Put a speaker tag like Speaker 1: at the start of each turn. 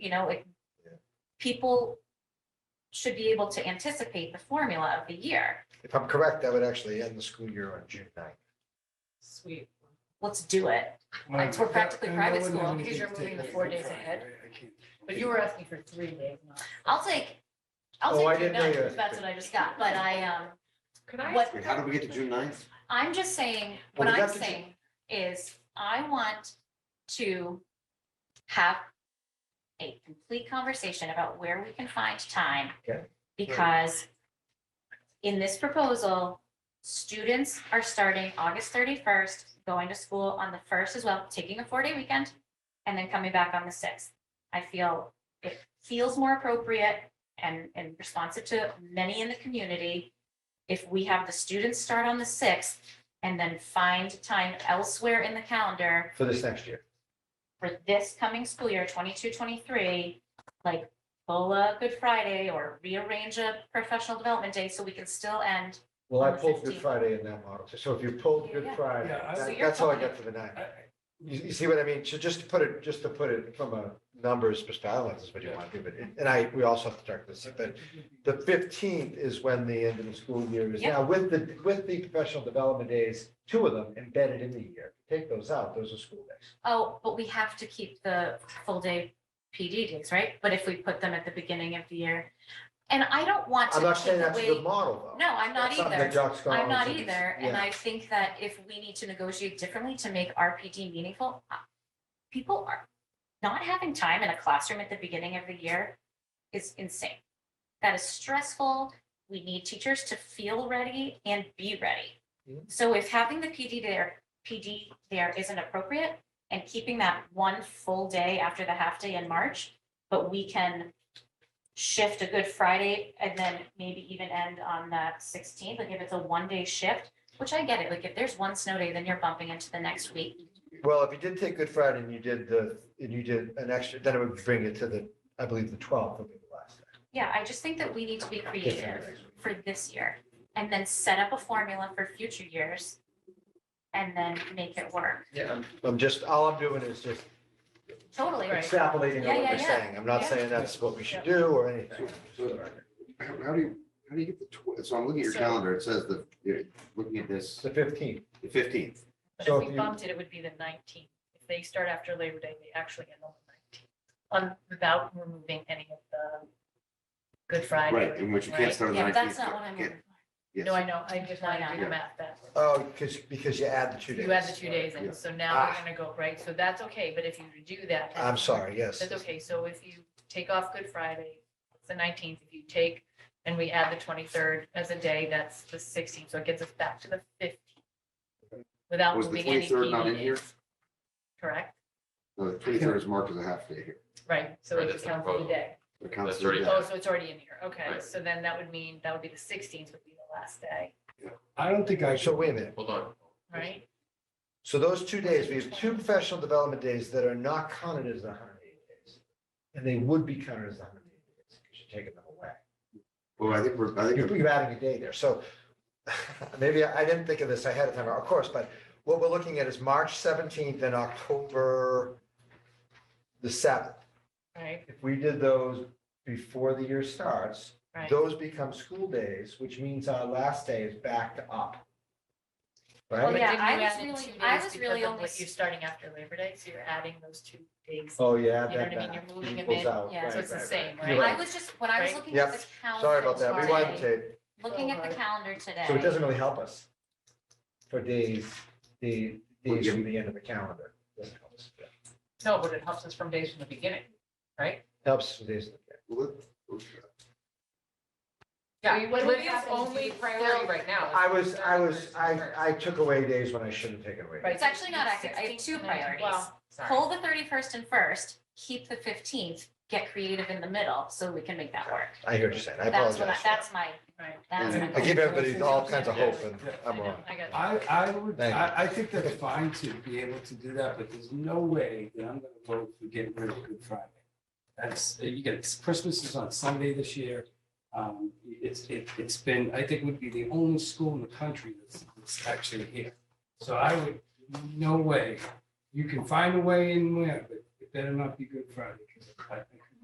Speaker 1: you know, it,
Speaker 2: Yeah.
Speaker 1: people should be able to anticipate the formula of the year.
Speaker 2: If I'm correct, that would actually end the school year on June 9th.
Speaker 3: Sweet.
Speaker 1: Let's do it. It's- we're practically
Speaker 4: And I
Speaker 1: private
Speaker 4: wouldn't have
Speaker 1: school
Speaker 3: because
Speaker 4: anything
Speaker 3: you're
Speaker 4: to
Speaker 3: moving
Speaker 4: take
Speaker 3: the four
Speaker 4: away
Speaker 3: days
Speaker 4: from
Speaker 3: ahead.
Speaker 4: Friday. I can't-
Speaker 3: But you were asking for three days, not.
Speaker 1: I'll take, I'll
Speaker 2: Oh, I
Speaker 1: take June
Speaker 2: didn't know you
Speaker 1: 9th,
Speaker 2: had
Speaker 1: that's
Speaker 2: to-
Speaker 1: what I just got, but I, um,
Speaker 3: Could I?
Speaker 1: What-
Speaker 5: Wait, how did we get to June 9th?
Speaker 1: I'm just saying,
Speaker 2: Well,
Speaker 1: what
Speaker 2: we
Speaker 1: I'm
Speaker 2: got the-
Speaker 1: saying is I want to have a complete conversation about where we can find time.
Speaker 2: Okay.
Speaker 1: Because in this proposal, students are starting August thirty-first, going to school on the first as well, taking a four-day weekend, and then coming back on the sixth. I feel it feels more appropriate and, and responsive to many in the community if we have the students start on the sixth and then find time elsewhere in the calendar
Speaker 2: For this next year.
Speaker 1: for this coming school year, 22-23, like pull a Good Friday or rearrange a professional development day so we can still end.
Speaker 2: Well, I
Speaker 1: On the
Speaker 2: pulled Good
Speaker 1: 15th.
Speaker 2: Friday in that model. So if you pulled Good
Speaker 1: Yeah.
Speaker 2: Friday,
Speaker 4: Yeah, I-
Speaker 2: that-
Speaker 4: So
Speaker 3: you're
Speaker 2: that's all I
Speaker 3: fine.
Speaker 2: got for the nine.
Speaker 4: I- I-
Speaker 2: You, you see what I mean? So just to put it, just to put it from a numbers perspective, I don't know if this is what you want to do, but, and I, we also have to talk this, but the fifteenth is when the end of the school year is
Speaker 1: Yeah.
Speaker 2: now with the, with the professional development days, two of them embedded in the year. Take those out, those are school days.
Speaker 1: Oh, but we have to keep the full day PD days, right? But if we put them at the beginning of the year, and I don't want to
Speaker 2: I'm not saying
Speaker 1: take
Speaker 2: that's the
Speaker 1: away.
Speaker 2: model though.
Speaker 1: No, I'm not
Speaker 2: That's something
Speaker 1: either.
Speaker 2: that Jock's
Speaker 1: I'm not
Speaker 2: Collins and-
Speaker 1: either, and
Speaker 2: yeah.
Speaker 1: I think that if we need to negotiate differently to make RPD meaningful, uh, people are not having time in a classroom at the beginning of the year is insane. That is stressful. We need teachers to feel ready and be ready.
Speaker 2: Mhm.
Speaker 1: So if having the PD there, PD there isn't appropriate and keeping that one full day after the half day in March, but we can shift a Good Friday and then maybe even end on the sixteenth, like if it's a one-day shift, which I get it, like if there's one snow day, then you're bumping into the next week.
Speaker 2: Well, if you did take Good Friday and you did the, and you did an extra, then it would bring it to the, I believe, the twelfth would be the last. day.
Speaker 1: Yeah, I just think that we need to be
Speaker 2: Good Friday
Speaker 1: creative
Speaker 2: next week.
Speaker 1: for this year and then set up a formula for future years and then make it work.
Speaker 2: Yeah, I'm- I'm just, all I'm doing is just
Speaker 1: Totally.
Speaker 3: Right.
Speaker 2: extrapolating
Speaker 1: Yeah,
Speaker 2: on what
Speaker 1: yeah,
Speaker 2: you're
Speaker 1: yeah.
Speaker 2: saying. I'm not
Speaker 1: Yeah.
Speaker 2: saying that's what we should do or anything.
Speaker 5: So- How how do you, how do you get the, tw- so I'm looking at your
Speaker 3: So-
Speaker 5: calendar, it says the, you're looking at this,
Speaker 2: It's the fifteenth.
Speaker 5: the fifteenth.
Speaker 3: But
Speaker 2: So
Speaker 3: if
Speaker 2: if
Speaker 3: we
Speaker 2: you-
Speaker 3: bumped it, it would be the nineteenth. If they start after Labor Day, they actually end on the nineteenth. On, without removing any of the Good Friday.
Speaker 5: Right, in which you can't
Speaker 3: right?
Speaker 5: start on the
Speaker 1: Yeah, but
Speaker 5: nineteenth.
Speaker 1: that's not what I'm looking for.
Speaker 3: No, I know. I just wanted to do
Speaker 5: Yeah.
Speaker 3: the math that. way.
Speaker 2: Oh, because, because you add the two days.
Speaker 3: You add the two days
Speaker 5: Yeah.
Speaker 3: in, so now
Speaker 2: Ah.
Speaker 3: we're gonna go, right? So that's okay, but if you do that.
Speaker 2: I'm sorry, yes.
Speaker 3: That's okay. So if you take off Good Friday, it's the nineteenth. If you take and we add the twenty-third as a day, that's the sixteenth. So it gets us back to the fifteenth. Without
Speaker 5: Was the
Speaker 3: moving any
Speaker 5: 23rd not
Speaker 3: PD
Speaker 5: in here?
Speaker 3: days. Correct?
Speaker 5: No, The twenty-third is marked as a half day here.
Speaker 3: Right, so
Speaker 6: Right,
Speaker 3: it
Speaker 6: that's
Speaker 3: just
Speaker 6: the
Speaker 3: counts as a
Speaker 6: proposal.
Speaker 3: day.
Speaker 5: It counts
Speaker 6: That's
Speaker 5: as a
Speaker 6: already-
Speaker 5: day.
Speaker 3: Oh, so it's already in here. Okay,
Speaker 6: Right.
Speaker 3: so then that would mean, that would be the sixteenth would be the last day,
Speaker 4: I don't think I
Speaker 2: So
Speaker 4: should,
Speaker 2: wait a minute.
Speaker 6: Hold on.
Speaker 3: right?
Speaker 2: So those two days, we have two professional development days that are not counted as the hundred and eighty days. And they would be counted as the hundred and eighty days because you're taking them away.
Speaker 5: Well, I think we're, I think,
Speaker 2: You're, you're adding a day there, so maybe I I didn't think of this ahead of time, of course, but what we're looking at is March seventeenth and October the seventh.
Speaker 3: Right,
Speaker 2: If we did those before the year starts,
Speaker 3: right.
Speaker 2: those become school days, which means our last day is backed up.
Speaker 1: Well,
Speaker 3: But
Speaker 2: Right?
Speaker 1: yeah,
Speaker 3: didn't
Speaker 1: I
Speaker 3: you
Speaker 1: was
Speaker 3: add in
Speaker 1: really-
Speaker 3: two
Speaker 1: I
Speaker 3: days
Speaker 1: was
Speaker 3: because
Speaker 1: really
Speaker 3: of
Speaker 1: only
Speaker 3: what
Speaker 1: s-
Speaker 3: You're starting after Labor Day, so you're adding those two days.
Speaker 2: Oh, yeah,
Speaker 3: You know
Speaker 2: that
Speaker 3: what I mean?
Speaker 2: back.
Speaker 3: You're moving a
Speaker 2: equals
Speaker 3: bit,
Speaker 2: out,
Speaker 1: yeah,
Speaker 3: So
Speaker 2: right,
Speaker 3: it's the
Speaker 2: right,
Speaker 3: same,
Speaker 2: right. You're
Speaker 1: I
Speaker 3: right?
Speaker 1: was just, when I was
Speaker 3: Right.
Speaker 1: looking at
Speaker 2: Yep.
Speaker 1: the calendar.
Speaker 2: Sorry about that, we
Speaker 1: today-
Speaker 2: wanted to,
Speaker 1: Looking at the
Speaker 3: Sorry.
Speaker 1: calendar today.
Speaker 2: so it doesn't really help us for days, the days from the end of the calendar. Doesn't help us.
Speaker 3: No, but it helps us from days from the beginning, right?
Speaker 2: Helps for days.
Speaker 5: we're-
Speaker 3: Yeah.
Speaker 7: what
Speaker 3: Lydia's
Speaker 7: happens
Speaker 3: only
Speaker 7: is
Speaker 3: priority
Speaker 7: still-
Speaker 3: right now. is
Speaker 2: I was, I
Speaker 3: starting
Speaker 2: was,
Speaker 3: first and
Speaker 2: I,
Speaker 3: first.
Speaker 2: I took away days when I shouldn't have taken away.
Speaker 3: Right.
Speaker 1: It's actually not accurate. I have
Speaker 3: 16th
Speaker 1: two
Speaker 3: and then-
Speaker 1: priorities.
Speaker 3: well, sorry.
Speaker 1: Pull the thirty-first and first, keep the fifteenth, get creative in the middle, so we can make that work.
Speaker 2: I hear what you're saying. I
Speaker 1: That's what, I-
Speaker 2: apologize.
Speaker 1: that's my,
Speaker 3: Right.
Speaker 1: that's my.
Speaker 5: And
Speaker 2: I give everybody all kinds of hope and
Speaker 3: I
Speaker 2: I'm
Speaker 3: know,
Speaker 2: wrong.
Speaker 3: I got it.
Speaker 4: I, I would,
Speaker 2: Thank you.
Speaker 4: I, I think that's fine to be able to do that, but there's no way that I'm gonna vote for getting rid of Good Friday. That's, you get, Christmas is on Sunday this year. Um, it's, it, it's been, I think would be the only school in the country that's, that's actually here. So I would, no way. You can find a way in there, but it better not be Good Friday, because I think